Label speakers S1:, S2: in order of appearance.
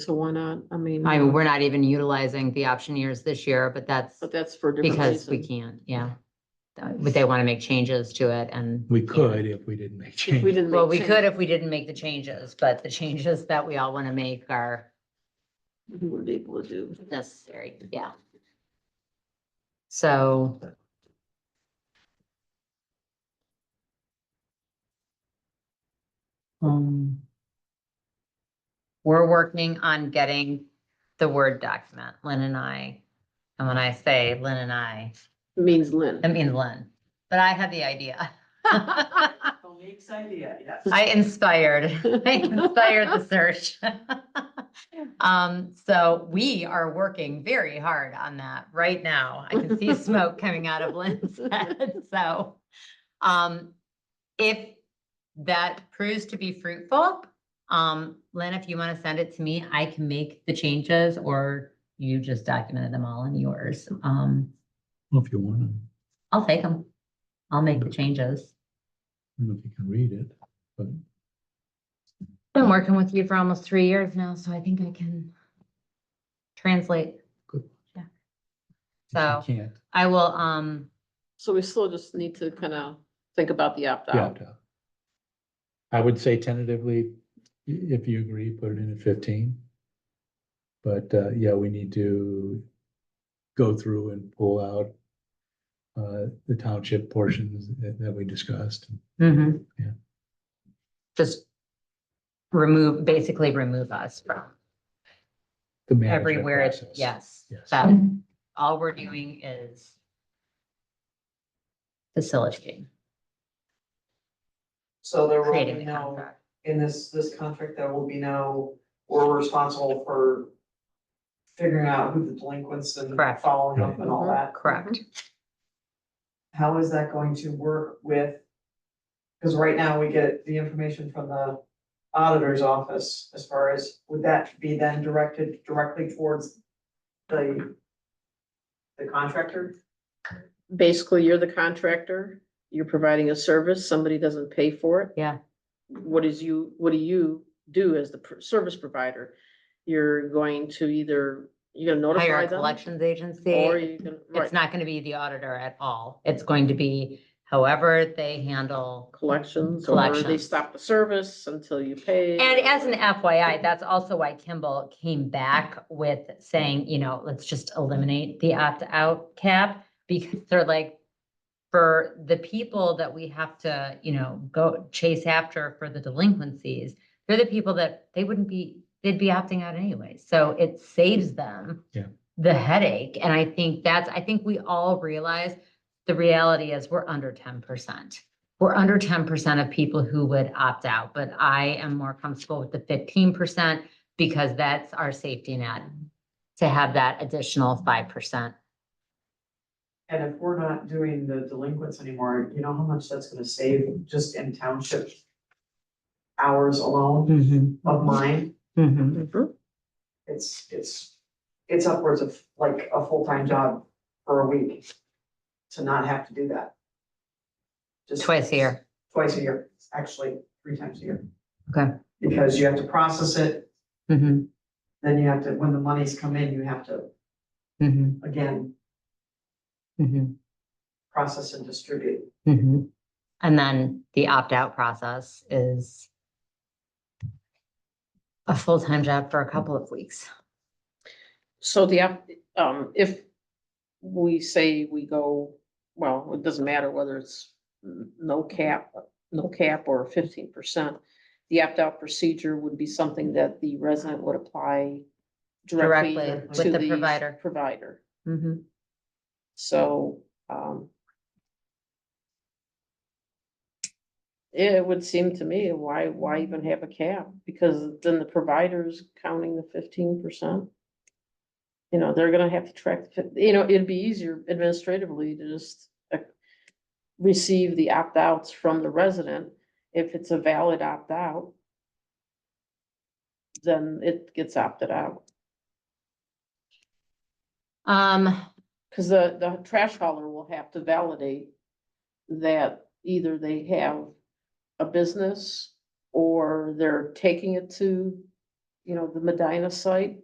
S1: So why not? I mean. uh,
S2: I mean, we're not even utilizing the option years this year, but that's
S1: Mm. But that's for a different
S2: because we
S1: reason.
S2: can't, yeah. Uh, But they want to make changes to it and.
S3: We could if we didn't make
S1: If we
S3: change.
S1: didn't.
S2: Well, we
S1: make
S2: could if we didn't make the changes, but the changes that we all want to make are
S1: change, We would be able to do.
S2: necessary, yeah. So. Um. We're working on getting the Word document, Lynn and I. And when I say Lynn and I,
S1: Means Lynn.
S2: I mean Lynn, but I had the idea.
S4: The league's idea, yes.
S2: I inspired, I inspired the search. Um, so we are working very hard on that right now. I can see smoke coming out of Lynn's head, so. Um, if that proves to be fruitful, um, Lynn, if you want to send it to me, I can make the changes or you just documented them all in yours. Um,
S3: Well, If you want, I
S2: I'll take them. I'll make the changes.
S3: don't know if you can read it, but
S2: Been working with you for almost three years now, so I think I can translate.
S3: Good.
S2: Yeah. So
S3: if you can't,
S2: I will, um,
S1: So we still just need to kind of think about the
S3: you
S1: opt-out.
S3: opt out. I would say tentatively, i- if you agree, put it in at fifteen. But, uh, yeah, we need to go through and pull out uh, the township portions that, that we discussed.
S2: mhm.
S3: Yeah.
S2: just remove, basically remove us from
S3: the management
S2: everywhere. it's-
S3: process.
S2: Yes.
S3: Yes.
S2: So all we're doing is facilitating,
S4: So there will be
S2: creating the
S4: no,
S2: contract.
S4: in this, this contract, there will be no, we're responsible for figuring out who the delinquents and
S2: Correct.
S4: following up and all that.
S2: Correct.
S4: How is that going to work with? Because right now we get the information from the auditor's office as far as, would that be then directed directly towards the the contractor?
S1: Basically, you're the contractor, you're providing a service, somebody doesn't pay for it.
S2: Yeah.
S1: What is you, what do you do as the pr- service provider? You're going to either, you're gonna Mm-hmm.
S2: Hire
S1: notify
S2: a
S1: them?
S2: collections agency.
S1: Or you're gonna,
S2: It's
S1: right,
S2: not going to be the auditor at all. It's going to be however they handle.
S1: collections, or they
S2: Collections.
S1: stop the service until you pay.
S2: And as an FYI, that's also why Kimball came back with saying, you know, let's just eliminate the opt-out cap because they're like, for the people that we have to, you know, go chase after for the delinquencies, they're the people that they wouldn't be, they'd be opting out anyway. So it saves them
S3: Yeah.
S2: the headache. And I think that's, I think we all realize the reality is we're under ten percent. We're under ten percent of people who would opt out, but I am more comfortable with the fifteen percent because that's our safety net to have that additional five percent.
S4: And if we're not doing the delinquents anymore, you know how much that's gonna save just in township hours alone of mine?
S1: Mhm.
S4: It's, it's, it's upwards of like a full-time job for a week to not have to do that. Just-
S2: Twice a year.
S4: Twice a year, actually, three times a year.
S2: Okay.
S4: Because you have to process it,
S2: Mhm,
S4: then you have to, when the monies come in, you have to,
S2: mhm,
S4: mm-hmm, again,
S2: mhm,
S4: process and distribute.
S2: mhm. And then the opt-out process is a full-time job for a couple of weeks.
S1: So the, app- um, if we say we go, well, it doesn't matter whether it's n- no cap, no cap or fifteen percent. The opt-out procedure would be something that the resident would apply directly
S2: Directly
S4: with
S1: to
S2: the provider.
S1: Provider,
S2: Mhm.
S1: so, um. It would seem to me, why, why even have a cap? Because then the provider's counting the fifteen percent. You know, they're gonna have to track, the fif- you know, it'd be easier administratively to just. uh, Receive the opt-outs from the resident, if it's a valid opt-out. Then it gets opted out,
S2: Um,
S1: cause the, the trash hauler will have to validate. That either they have a business or they're taking it to. you know, the Medina site